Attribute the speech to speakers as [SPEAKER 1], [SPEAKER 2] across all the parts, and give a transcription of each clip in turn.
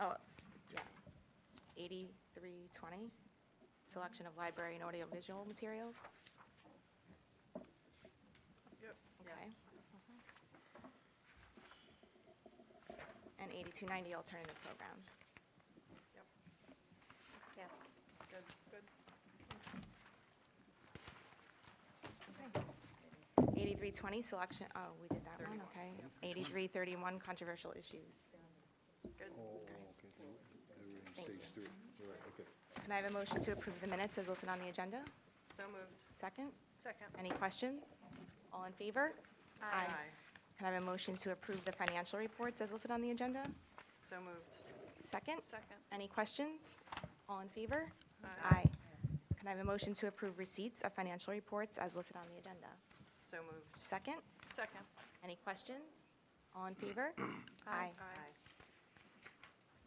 [SPEAKER 1] Oh, it's, yeah, 8320, selection of library and audiovisual materials.
[SPEAKER 2] Yep.
[SPEAKER 1] Okay. Uh-huh. And 8290, alternative program.
[SPEAKER 2] Yep.
[SPEAKER 1] Yes.
[SPEAKER 2] Good, good.
[SPEAKER 1] 8320, selection, oh, we did that one,
[SPEAKER 2] 31,
[SPEAKER 1] okay. 8331, controversial issues.
[SPEAKER 2] Good.
[SPEAKER 3] Oh, okay, they were- they were in
[SPEAKER 1] Thank
[SPEAKER 3] stage
[SPEAKER 1] you.
[SPEAKER 3] three, all right, okay.
[SPEAKER 1] Can I have a motion to approve the minutes as listed on the agenda?
[SPEAKER 2] So moved.
[SPEAKER 1] Second?
[SPEAKER 2] Second.
[SPEAKER 1] Any questions? All in favor? Can I have a motion to approve the financial reports as listed on the agenda?
[SPEAKER 2] So moved.
[SPEAKER 1] Second?
[SPEAKER 2] Second.
[SPEAKER 1] Any questions? All in favor?
[SPEAKER 2] Aye.
[SPEAKER 1] Can I have a motion to approve receipts of financial reports as listed on the agenda?
[SPEAKER 2] So moved.
[SPEAKER 1] Second?
[SPEAKER 2] Second.
[SPEAKER 1] Any questions? All in favor? Aye.
[SPEAKER 2] Aye.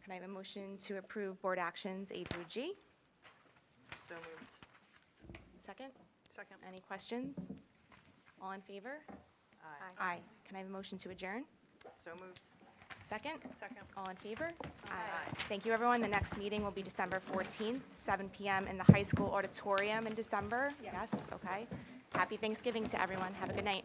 [SPEAKER 1] Can I have a motion to approve board actions A through G?
[SPEAKER 2] So moved.
[SPEAKER 1] Second?
[SPEAKER 2] Second.
[SPEAKER 1] Any questions? All in favor?
[SPEAKER 2] Aye.
[SPEAKER 1] Aye. Can I have a motion to adjourn?
[SPEAKER 2] So moved.
[SPEAKER 1] Second?
[SPEAKER 2] Second.
[SPEAKER 1] All in favor?
[SPEAKER 2] Aye.
[SPEAKER 1] Thank you, everyone. The next meeting will be December 14th, 7 PM in the high school auditorium in December. Yes, okay. Happy Thanksgiving to everyone. Have a good night.